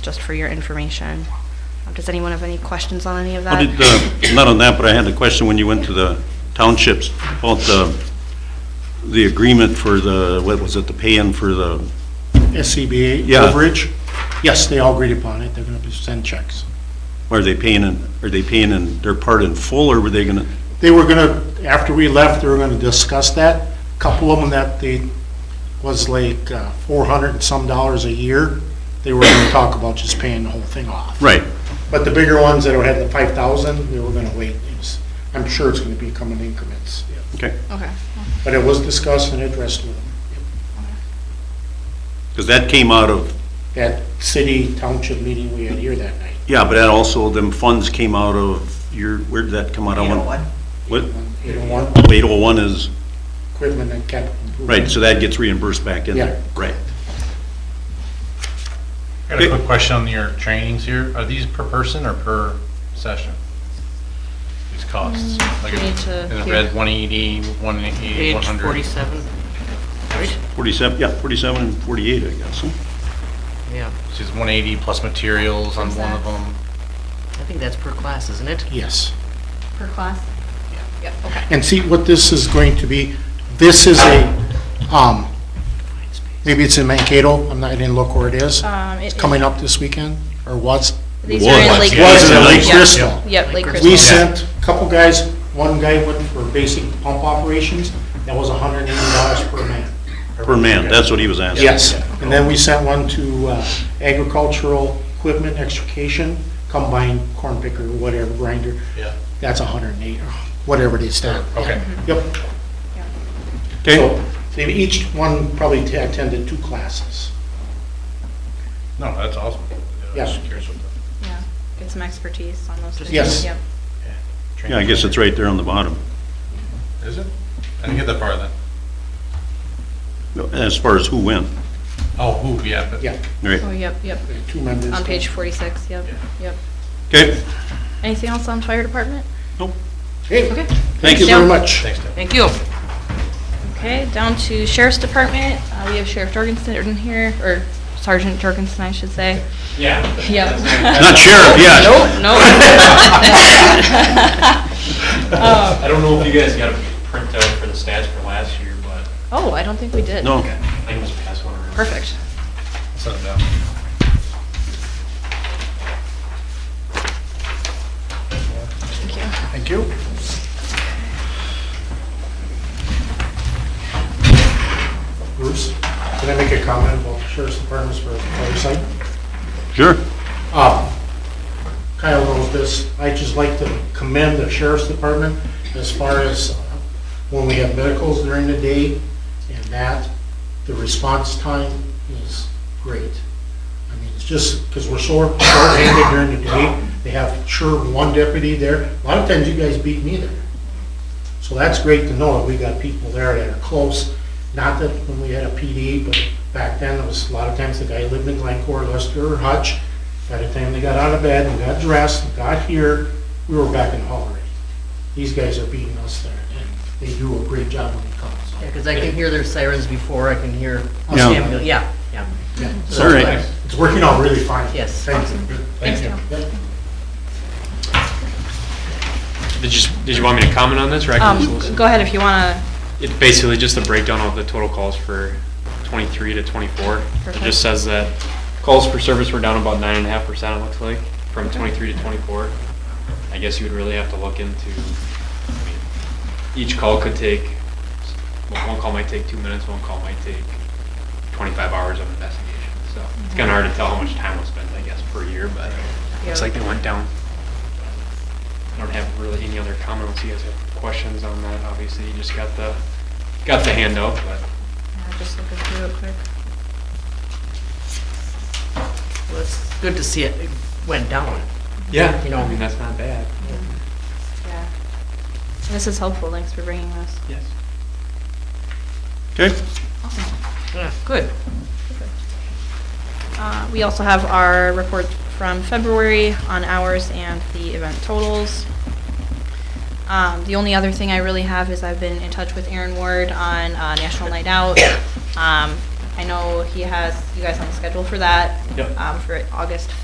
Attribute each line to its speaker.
Speaker 1: just for your information. Uh, Does anyone have any questions on any of
Speaker 2: How
Speaker 1: that?
Speaker 2: did, uh, not on that, but I had a question when you went to the townships about the, the agreement for the, what was it, the pay-in for the,
Speaker 3: SCBA
Speaker 2: Yeah.
Speaker 3: coverage. Yes, they all agreed upon it, they're gonna send checks.
Speaker 2: are they paying in, are they paying in their part in full, or were they gonna,
Speaker 3: They were gonna, after we left, they were gonna discuss that. Couple of them that they, was like uh, 400 and some dollars a year, they were gonna talk about just paying the whole thing off.
Speaker 2: right,
Speaker 3: But the bigger ones that had the 5,000, they were gonna wait. It's- I'm sure it's gonna be coming increments.
Speaker 2: okay.
Speaker 1: Okay.
Speaker 3: But it was discussed and addressed with them.
Speaker 2: Because that came out of,
Speaker 3: That city township meeting we had here that night.
Speaker 2: yeah, but that also, them funds came out of your, where did that come out? I want- What,
Speaker 3: You don't want
Speaker 2: 801 is,
Speaker 3: equipment and capital improvement.
Speaker 2: right, so that gets reimbursed back in there,
Speaker 3: Yeah.
Speaker 2: right?
Speaker 4: I got a quick question on your trainings here. Are these per person or per session? These costs? Like,
Speaker 5: need
Speaker 4: is
Speaker 5: to
Speaker 4: it
Speaker 5: hear-
Speaker 4: red 180, 180,
Speaker 5: Page
Speaker 4: 100?
Speaker 5: 47, right?
Speaker 2: 47, yeah, 47 and 48, I guess, huh?
Speaker 5: Yeah,
Speaker 4: So it's 180 plus materials on one of them?
Speaker 5: I think that's per class, isn't it?
Speaker 3: Yes.
Speaker 1: Per class? Yep, okay.
Speaker 3: And see, what this is going to be, this is a, um, maybe it's in Mankato, I'm not, I didn't look where it is.
Speaker 6: Um, it-
Speaker 3: It's coming up this weekend, or was,
Speaker 6: These are in
Speaker 2: Was.
Speaker 6: Lake
Speaker 2: Yeah,
Speaker 3: was
Speaker 6: Crystal.
Speaker 3: in Lake
Speaker 6: Yeah.
Speaker 3: Crystal.
Speaker 6: Yep, Lake
Speaker 3: We
Speaker 6: Crystal.
Speaker 3: sent a couple guys, one guy went for basic pump operations, that was hundred and eighty dollars per man.
Speaker 2: Per man, that's what he was asking.
Speaker 3: Yes, and then we sent one to uh, agricultural equipment extrication, combine corn picker, whatever, grinder,
Speaker 4: Yeah.
Speaker 3: that's hundred and eight, whatever they stand.
Speaker 4: Okay.
Speaker 3: Yep.
Speaker 2: Okay,
Speaker 3: So they each one probably t- attended two classes.
Speaker 4: No, that's awesome. I was
Speaker 3: Yeah.
Speaker 4: curious what the
Speaker 6: Yeah, Get some expertise on those things.
Speaker 3: Yes.
Speaker 6: Yep.
Speaker 2: yeah, I guess it's right there on the bottom.
Speaker 4: Is it? I didn't get that far then.
Speaker 2: As far as who went,
Speaker 4: Oh, who, yeah, but.
Speaker 3: Yeah,
Speaker 2: right?
Speaker 6: Oh, yep, yep.
Speaker 3: there are two members.
Speaker 6: On page 46, yep,
Speaker 4: Yeah.
Speaker 6: yep.
Speaker 2: Okay,
Speaker 6: Anything else on fire department?
Speaker 3: Hey,
Speaker 6: Okay.
Speaker 3: thank you very much.
Speaker 4: Thanks, Deb.
Speaker 5: Thank you.
Speaker 6: Okay, down to sheriff's department. Uh, We have Sheriff Jorgensen here, or Sergeant Jorgensen, I should say.
Speaker 4: Yeah.
Speaker 6: Yep.
Speaker 2: not sheriff yet.
Speaker 5: Nope, no.
Speaker 7: I don't know if you guys got a printout for the stats for last year, but
Speaker 6: Oh, I don't think we did.
Speaker 2: No,
Speaker 7: I think it was passed one around.
Speaker 6: Perfect.
Speaker 4: Set it down.
Speaker 6: Thank you.
Speaker 3: Thank you. Bruce, can I make a comment about the sheriff's department's for fire site?
Speaker 2: sure.
Speaker 3: Uh, Kyle knows this, I just like to commend the sheriff's department as far as uh, when we have medicals during the day and that, the response time is great. I mean, it's just, because we're so short-handed during the day, they have sure one deputy there, a lot of times you guys beat me there. So that's great to know that we got people there that are close, not that when we had a PD, but back then, it was a lot of times the guy lived in Glencore, Lester, or Hutch. By the time they got out of bed and got dressed and got here, we were back in the hall already. These guys are beating us there, and they do a great job when it comes.
Speaker 5: Because I can hear their sirens before I can hear the
Speaker 3: Oh.
Speaker 2: Yeah.
Speaker 5: ambulance. Yeah, yeah.
Speaker 3: Yeah,
Speaker 2: All
Speaker 3: so
Speaker 2: right,
Speaker 3: It's working out really fine.
Speaker 5: Yes.
Speaker 3: Thank you.
Speaker 6: Thanks, Cal.
Speaker 3: Yep.
Speaker 7: Did you, did you want me to comment on this, or I can just
Speaker 6: Um,
Speaker 7: listen?
Speaker 6: Go ahead if you want to
Speaker 7: It's basically just a breakdown of the total calls for 23 to 24. It
Speaker 6: Perfect.
Speaker 7: just says that calls for service were down about 9.5%, it looks like, from 23 to 24. I guess you would really have to look into, I mean, each call could take, well, one call might take two minutes, one call might take 25 hours of investigation. So it's kind of
Speaker 6: Mm-hmm.
Speaker 7: hard to tell how much time was spent, I guess, per year, but looks like they went down. I don't have really any other comments. You guys have questions on that? Obviously, you just got the, got the handout, but.
Speaker 6: Yeah, Just looking through it quick.
Speaker 5: Well, it's good to see it it went down.
Speaker 7: Yeah, you know, I mean, that's not bad.
Speaker 6: Yeah. This is helpful, thanks for bringing this.
Speaker 7: Yes.
Speaker 2: okay.
Speaker 5: Yeah, Good.
Speaker 6: Uh, We also have our report from February on hours and the event totals. Um, The only other thing I really have is I've been in touch with Aaron Ward on uh, National Night Out. Um,
Speaker 1: I know he has you guys on the schedule for that.
Speaker 8: Yep.
Speaker 1: Um, for August